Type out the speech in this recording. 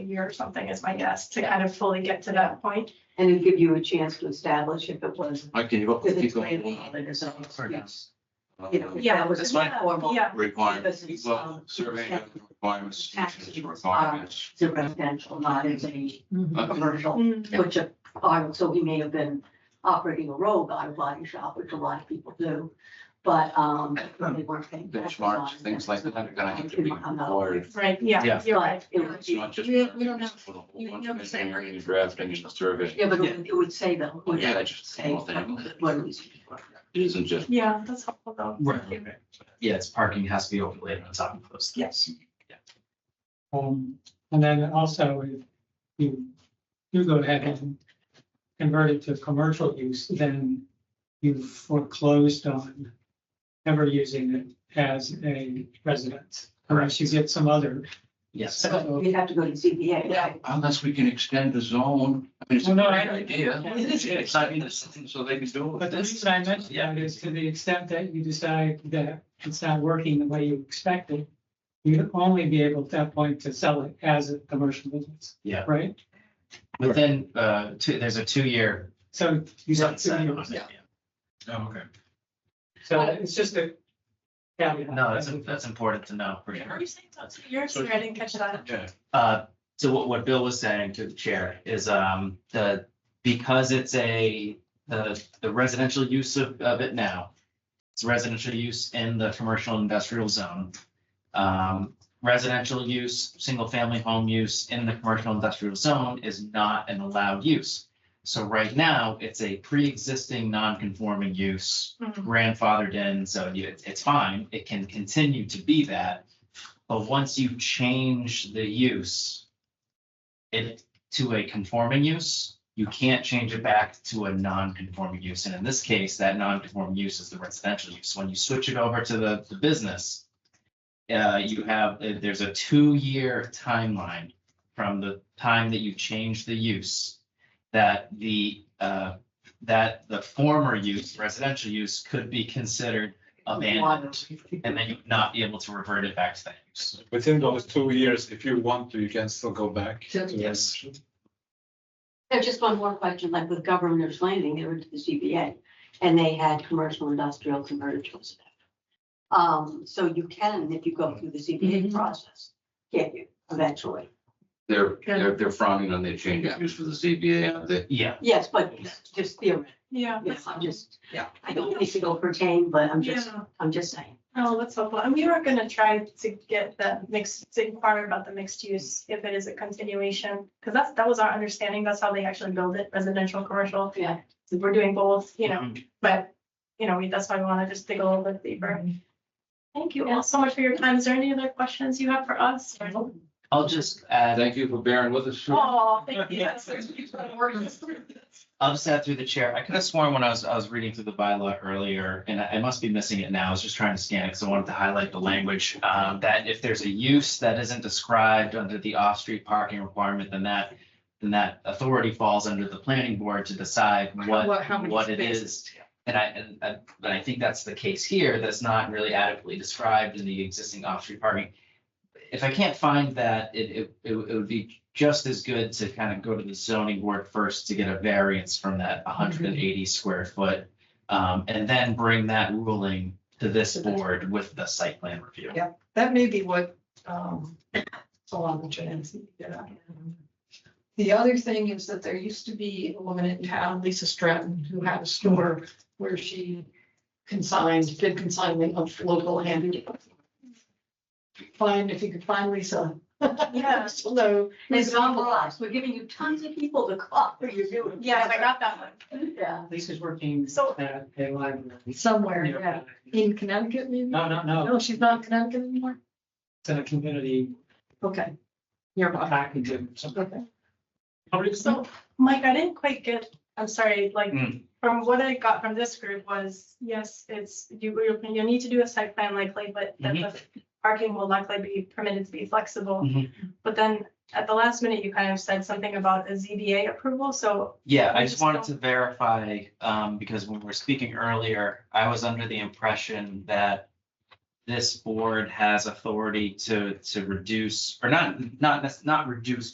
year or something is my guess, to kind of fully get to that point. And it'd give you a chance to establish if it was. Okay, you got, Because you it's planning got. audit is an excuse, you know, uh, if that was That's fine. informal Yeah, Requirements, Because it's, well, um, surveying yeah. requirements, Taxes, uh, dimensions, requirements. It's a residential, not as a Uh, commercial, Mm, Yeah. which, uh, so he may have been operating a roll-by body shop, which a lot of people do. But, um, they weren't paying. taxes on Benchmarks, it. things like that are gonna have to I'm be not- Um, I'm not- required. Right, yeah, Yeah. you're right. But it would It's be, not just. We- we don't have- for the whole you bunch don't of say- engineering and Drafting and surveying. yeah, but it would- it would say though. would Yeah, it just the Say, whole thing. what are these? It isn't just. Yeah, that's helpful though. Right, right. Yes, parking has to be overlaid on top of those. Yes. Um, and then also if you do go ahead and convert it to commercial use, then you've foreclosed on ever using it as a residence, unless you get some other. Yes. So you'd have to go to ZBA, right? Unless we can extend the zone. I mean, it's a Well, no, great I- idea. It's not in the system, so they can do But it. the reason I mentioned that is to the extent that you decide that it's not working the way you expected, you'd only be able at that point to sell it as a commercial business. Yeah. Right? But then, uh, two, there's a two-year So you said two sunset on years. it. yeah. Oh, okay. So it's just a. caveat. No, that's, that's important to know for Are sure. you saying that's two years? Sorry, I didn't catch that. Yeah. Uh, so what, what Bill was saying to the chair is, um, the, because it's a, the, the residential use of, of it now. It's residential use in the commercial industrial zone. Um, residential use, single-family home use in the commercial industrial zone is not an allowed use. So right now, it's a pre-existing non-conforming use Mm, grandfathered in, so you, it's- it's fine, it can continue to be that. But once you change the use it to a conforming use, you can't change it back to a non-conforming use. And in this case, that non-conforming use is the residential use. When you switch it over to the, the business, uh, you have, there's a two-year timeline from the time that you change the use that the, uh, that the former use, residential use, could be considered abandoned. And then you'd not be able to revert it back to that use. Within those two years, if you want to, you can still go back. So- to- Yes. There's just one more question, like with Governor's Landing, they were to the ZBA, and they had commercial industrial converted to residential. Um, so you can, if you go through the Mm-hmm. ZBA process, get you eventually. They're, they're, they're frowning on their change of use for the ZBA, aren't they? Yeah, Yes, but just theoretically, Yeah. yes, I'm just, Yeah. I don't think it'll pertain, but I'm just, Yeah. I'm just saying. Oh, that's helpful. And we were gonna try to get the mixed, to inquire about the mixed use, if it is a continuation, because that's, that was our understanding. That's how they actually build it, residential, commercial. Yeah. So We're doing both, Mm-hmm. you know, but, you know, we- that's why we want to just dig a little bit deeper. Thank you all so much for your time. Is there any other questions you have for us? I'll just add, Thank you for bearing with us. Oh, thank you. That's- I'll just add through the chair. I could have sworn when I was, I was reading through the bylaw earlier, and I I must be missing it now. I was just trying to scan it because I wanted to highlight the language. um, That if there's a use that isn't described under the off-street parking requirement, then that, then that authority falls under the planning board to decide what, what it is. And I, and, I- but I think that's the case here, that's not really adequately described in the existing off-street parking. If I can't find that, it, it, it would it would be just as good to kind of go to the zoning board first to get a variance from that hundred and eighty square foot. Um, and then bring that ruling to this board with the site plan review. Yeah. That may be what, um, Solomon and see, yeah. The other thing is that there used to be a woman in town, Lisa Stratton, who had a store where she consigned, did consignment of local handicraft. Find, if you could find Lisa. Yeah. Hello. It's not for us, we're giving you tons of people to call for your doing. Yes, I got that one. Yeah. Lisa's working Uh, So- at a library. Somewhere, yeah. In Connecticut, maybe? No, no, no, No, she's not in Connecticut anymore? it's in a community Okay. Nearby. package or something. Okay. So, Mike, I didn't quite get, I'm sorry, like, Mm. from what I got from this group was, yes, it's, you, you- you need to do a site plan likely, but that the parking will likely be permitted to be flexible. Mhm. But then at the last minute, you kind of said something about a ZBA approval, so, Yeah, I I just just wanted don't- to verify, um, because when we were speaking earlier, I was under the impression that this board has authority to, to reduce, or not, not, nec- not reduce,